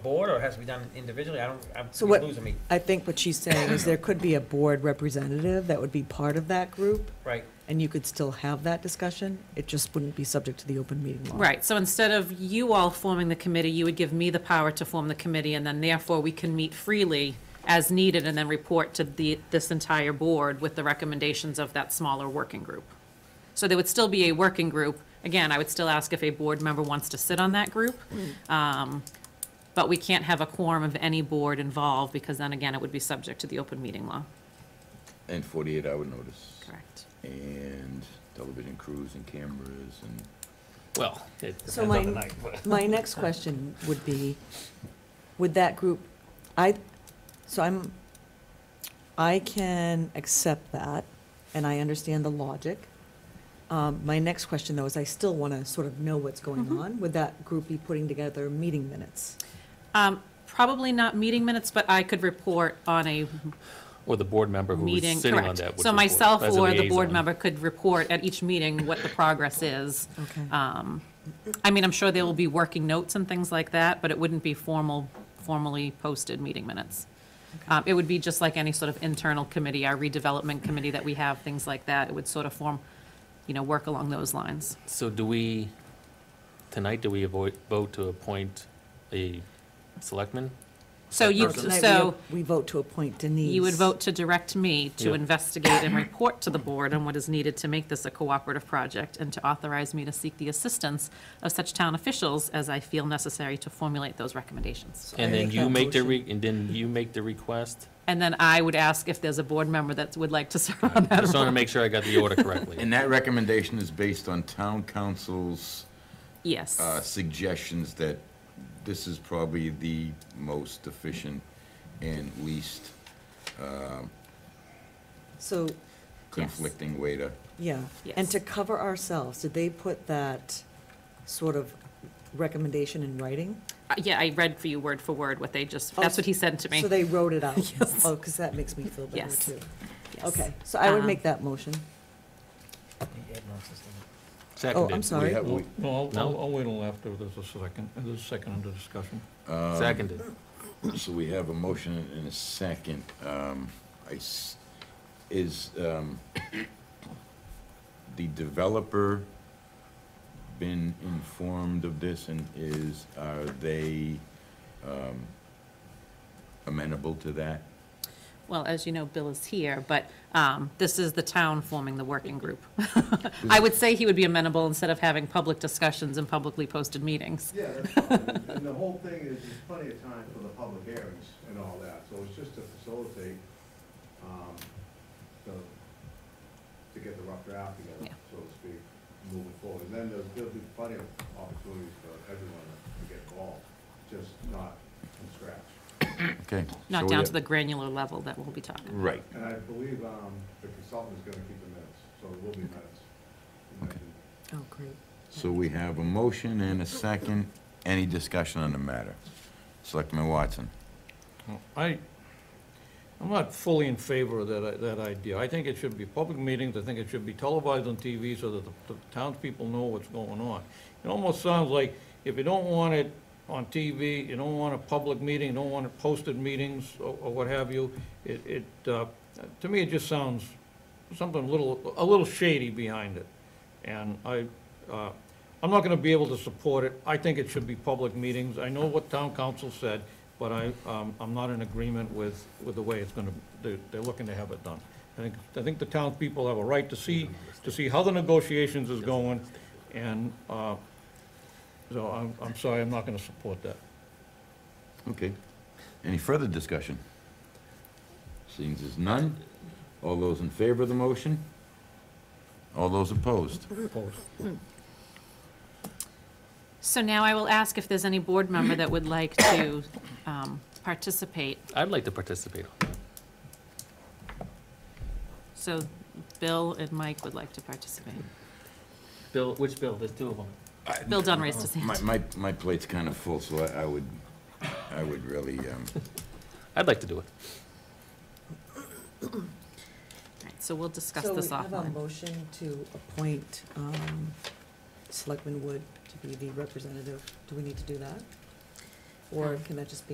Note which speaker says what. Speaker 1: board, or it has to be done individually? I don't, I'm
Speaker 2: So
Speaker 1: you're
Speaker 2: what-
Speaker 1: losing me,
Speaker 2: I think what she's saying is there could be a board representative that would be part of that group,
Speaker 1: right?
Speaker 2: and you could still have that discussion. It just wouldn't be subject to the open meeting law.
Speaker 3: Right, so instead of you all forming the committee, you would give me the power to form the committee, and then therefore we can meet freely as needed and then report to the, this entire board with the recommendations of that smaller working group. So there would still be a working group. Again, I would still ask if a board member wants to sit on that group. Um, But we can't have a quorum of any board involved, because then again, it would be subject to the open meeting law.
Speaker 4: And forty-eight hour notice.
Speaker 3: Correct.
Speaker 4: And television crews and cameras and,
Speaker 5: Well, it depends
Speaker 2: So
Speaker 5: on
Speaker 2: my-
Speaker 5: the night. but-
Speaker 2: My next question would be, would that group, I, so I'm, I can accept that, and I understand the logic. Um, My next question, though, is I still want to sort of know what's going on. Would that group be putting together meeting minutes?
Speaker 3: Um, Probably not meeting minutes, but I could report on a
Speaker 5: Or the board member who was
Speaker 3: meeting,
Speaker 5: sitting on
Speaker 3: correct.
Speaker 5: that. would
Speaker 3: So
Speaker 5: report
Speaker 3: myself
Speaker 5: as a
Speaker 3: or the board
Speaker 5: liaison.
Speaker 3: member could report at each meeting what the progress is.
Speaker 2: Okay.
Speaker 3: Um, I mean, I'm sure there will be working notes and things like that, but it wouldn't be formal, formally posted meeting minutes. Um, It would be just like any sort of internal committee, our redevelopment committee that we have, things like that. It would sort of form, you know, work along those lines.
Speaker 5: So do we, tonight, do we avoid, vote to appoint a selectman?
Speaker 3: So you,
Speaker 5: Person.
Speaker 3: so
Speaker 2: Tonight, we- We vote to appoint Denise.
Speaker 3: you would vote to direct me to
Speaker 5: Yeah.
Speaker 3: investigate and report to the board on what is needed to make this a cooperative project and to authorize me to seek the assistance of such town officials as I feel necessary to formulate those recommendations.
Speaker 5: And
Speaker 2: I
Speaker 5: then
Speaker 2: make
Speaker 5: you
Speaker 2: that
Speaker 5: make the,
Speaker 2: motion.
Speaker 5: re- and then you make the request?
Speaker 3: And then I would ask if there's a board member that would like to serve on
Speaker 5: I
Speaker 3: that
Speaker 5: just want to
Speaker 3: role.
Speaker 5: make sure I got the order correctly.
Speaker 4: and that recommendation is based on town council's, uh,
Speaker 3: Yes,
Speaker 4: suggestions that this is probably the most efficient and least
Speaker 2: So,
Speaker 4: conflicting way to,
Speaker 2: yeah.
Speaker 3: Yes.
Speaker 2: And to cover ourselves, did they put that sort of recommendation in writing?
Speaker 3: Uh, yeah, I read for you word for word what they just,
Speaker 2: Oh,
Speaker 3: that's what he said to me.
Speaker 2: So they wrote it out?
Speaker 3: Yes.
Speaker 2: Oh, because that makes me feel better,
Speaker 3: Yes.
Speaker 2: too.
Speaker 3: Yes.
Speaker 2: Okay, so I would
Speaker 3: Um,
Speaker 2: make that motion. Oh, I'm
Speaker 5: Seconded.
Speaker 2: sorry.
Speaker 4: have-
Speaker 6: No, no, I'll-
Speaker 5: No?
Speaker 6: I'll, I'll wait till after there's a second, and there's a second under discussion.
Speaker 5: Seconded.
Speaker 4: so we have a motion in a second. Um, I s- is, um, the developer been informed of this and is, are they, um, amenable to that?
Speaker 3: Well, as you know, Bill is here, but um, this is the town forming the working group. I would say he would be amenable instead of having public discussions and publicly posted meetings.
Speaker 7: Yeah, that's fine, and the whole thing is, there's plenty of time for the public hearings and all that, so it's just to facilitate, um, the, to get the rough draft
Speaker 3: Yeah.
Speaker 7: together, so to speak, moving forward, and then there'll, there'll be plenty of opportunities for everyone to get involved, just not from scratch.
Speaker 4: Okay.
Speaker 3: Not down to the granular level that we'll be talking.
Speaker 4: Right.
Speaker 7: And I believe, um, the consultant is gonna keep the minutes, so there will be minutes.
Speaker 4: Okay.
Speaker 2: Oh, great.
Speaker 4: So we have a motion and a second. Any discussion on the matter? Selectman Watson?
Speaker 6: Uh, I, I'm not fully in favor of that, i- that idea. I think it should be public meetings, I think it should be televised on TV so that the the townspeople know what's going on. It almost sounds like if you don't want it on TV, you don't want a public meeting, you don't want it posted meetings or or what have you, it, it, uh, to me, it just sounds something a little, a little shady behind it. And I, uh, I'm not gonna be able to support it. I think it should be public meetings. I know what town council said, but I, um, I'm not in agreement with, with the way it's gonna, they're, they're looking to have it done. I think, I think the townspeople have a right to see, to see how the negotiations is going, and, uh, so I'm, I'm sorry, I'm not gonna support that.
Speaker 4: Okay. Any further discussion? Seeing as there's none, all those in favor of the motion? All those opposed?
Speaker 6: Opposed.
Speaker 3: So now I will ask if there's any board member that would like to um, participate.
Speaker 5: I'd like to participate.
Speaker 3: So Bill and Mike would like to participate.
Speaker 5: Bill, which Bill? There's two of them.
Speaker 3: Bill Dunn raised his
Speaker 4: My,
Speaker 3: hand.
Speaker 4: my, my plate's kind of full, so I, I would, I would really, um,
Speaker 5: I'd like to do it.
Speaker 3: Alright, So we'll discuss this
Speaker 2: So we have a
Speaker 3: offline.
Speaker 2: motion to appoint um, Selectman Wood to be the representative. Do we need to do that? Or can that just be